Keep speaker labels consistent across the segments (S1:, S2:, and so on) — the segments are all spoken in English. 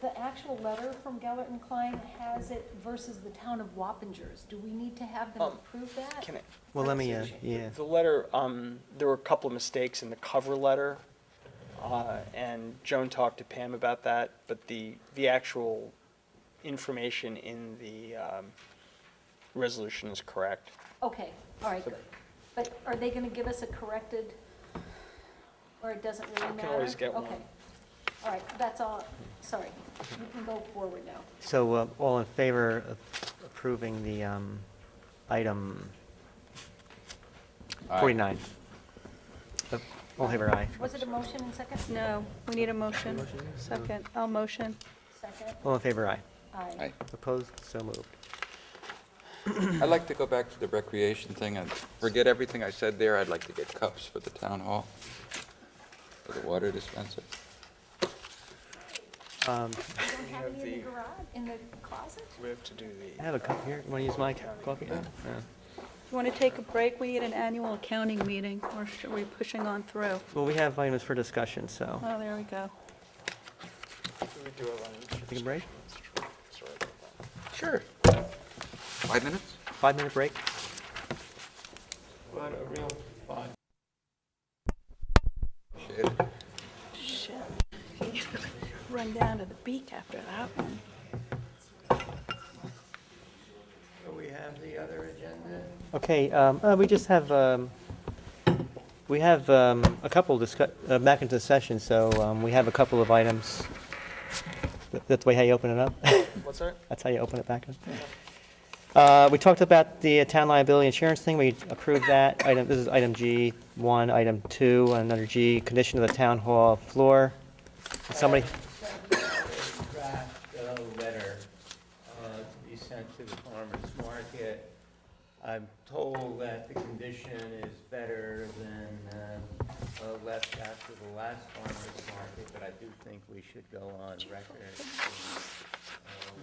S1: the actual letter from Gellert and Klein has it versus the town of Wappingers. Do we need to have them
S2: Um,
S1: approve that?
S2: Can I,
S3: Well, let me, uh,
S1: Conversation.
S3: yeah,
S2: The letter, um, there were a couple of mistakes in the cover letter, uh, and Joan talked to Pam about that, but the, the actual information in the, um, resolution is correct.
S1: Okay, all right, good. But are they gonna give us a corrected, or it doesn't really matter?
S2: I can always get one.
S1: Okay. All right, that's all, sorry. We can go forward now.
S3: so uh, all in favor of approving the um, item
S4: Aye.
S3: 49? Uh, All in favor, aye.
S1: Was it a motion and second?
S5: No, we need a motion. Second, I'll motion.
S1: Second?
S3: All in favor, aye.
S1: Aye.
S4: Aye.
S3: Opposed, so moved.
S4: I'd like to go back to the recreation thing and forget everything I said there. I'd like to get cups for the town hall, for the water dispenser.
S1: You
S3: Um,
S1: don't have any in
S2: the-
S1: the garage, in the closet?
S2: We have to do the.
S3: I have a cup here, want to use my coffee? No? No.
S5: Do you want to take a break? We need an annual accounting meeting, or are we pushing on through?
S3: Well, we have items for discussion, so,
S5: Oh, there we go.
S3: take a break?
S4: Sure. Five minutes?
S3: Five-minute break?
S4: Shit.
S5: Shit. Run down to the beak after that one.
S3: Okay, um, uh, we just have, um, we have um, a couple discuss, uh, back into the session, so um, we have a couple of items. Th- That's the way how you open it up?
S2: What's that?
S3: That's how you open it back up? Uh, We talked about the town liability insurance thing, we approved that, item, this is item G1, item 2, and another G, condition of the town hall floor. Did Somebody,
S6: draft uh, letter uh, to be sent to the farmer's market. I'm told that the condition is better than uh, uh, left after the last farmer's market, but I do think we should go on record uh,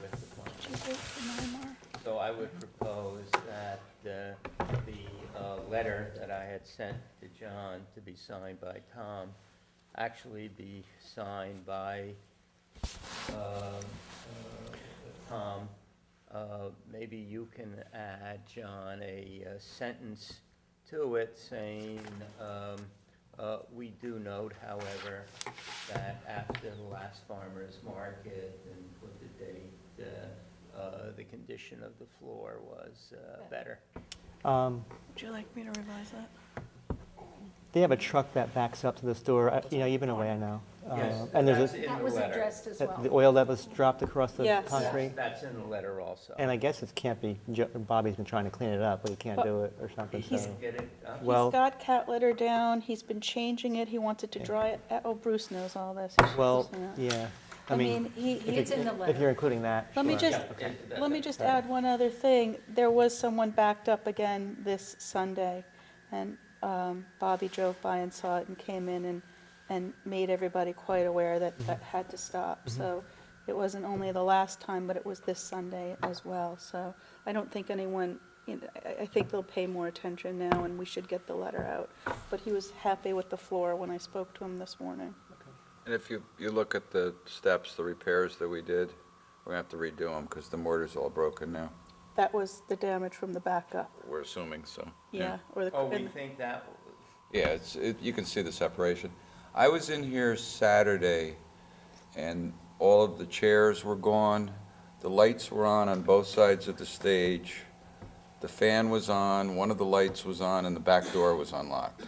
S6: with the farmer's so I would propose that uh, the uh, letter that I had sent to John to be signed by Tom actually be signed by um, uh, Tom. Uh, Maybe you can add, John, a uh, sentence to it saying, um, uh, we do note, however, that after the last farmer's market and put the date, uh, uh, the condition of the floor was uh, better.
S3: um,
S5: Would you like me to revise that?
S3: they have a truck that backs up to the store, I- you know, you've been away, I know.
S6: Yes,
S3: Uh, And there's
S6: that's
S3: a-
S6: in
S1: That
S6: the
S1: was
S6: letter.
S1: addressed as
S3: that- the
S1: well.
S3: oil that was dropped across the
S5: Yes.
S6: That's-
S3: concrete.
S6: That's in the letter also.
S3: And I guess it can't be, Jo- Bobby's been trying to clean it up, but he can't
S5: But
S3: do it or something,
S5: he's-
S3: so.
S6: Get it? Uh,
S3: Well-
S5: He's got cat litter down, he's been changing it, he wants it to dry, it- oh, Bruce knows all this. he should
S3: Well,
S5: listen to that.
S3: yeah, I
S5: I mean,
S3: mean,
S5: he, he-
S1: It's in the
S3: if you're
S1: letter.
S3: including that.
S5: Let me
S3: sure.
S5: just-
S6: yeah, it- that-
S5: let me
S6: that-
S5: just add one other thing. There was someone backed up again this Sunday, and um, Bobby drove by and saw it and came in and, and made everybody quite aware that
S6: Mm-hmm.
S5: that had to stop. So it wasn't only the last time, but it was this Sunday as well. So I don't think anyone, you know, I, I think they'll pay more attention now, and we should get the letter out. But he was happy with the floor when I spoke to him this morning.
S4: And if you, you look at the steps, the repairs that we did, we're gonna have to redo them because the mortar's all broken now.
S5: That was the damage from the backup,
S4: We're assuming, so.
S5: yeah, or the.
S6: Oh, we
S5: and-
S6: think that,
S4: Yeah, it's, it, you can see the separation. I was in here Saturday, and all of the chairs were gone, the lights were on on both sides of the stage, the fan was on, one of the lights was on, and the back door was unlocked.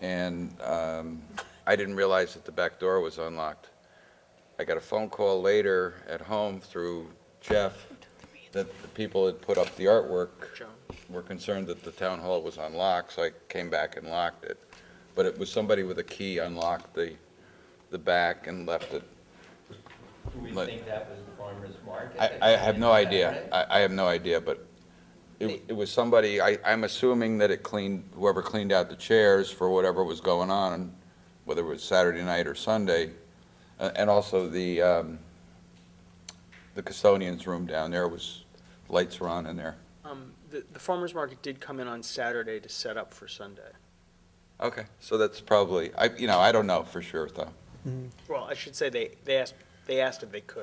S4: And, um, I didn't realize that the back door was unlocked. I got a phone call later at home through Jeff that the people had put up the artwork were concerned that the town hall was unlocked, so I came back and locked it. But it was somebody with a key unlocked the, the back and left it.
S6: do we
S4: But-
S6: think that was the farmer's market?
S4: I,
S6: that
S4: I
S6: came
S4: have
S6: in
S4: no
S6: with that,
S4: idea.
S6: right?
S4: I, I have no idea, but it, it was somebody, I, I'm assuming that it cleaned, whoever cleaned out the chairs for whatever was going on, whether it was Saturday night or Sunday. A- And also the, um, the custodian's room down there was, lights were on in there.
S2: Um, the, the farmer's market did come in on Saturday to set up for Sunday.
S4: Okay, so that's probably, I, you know, I don't know for sure, though.
S2: Well, I should say they, they asked, They asked if they could.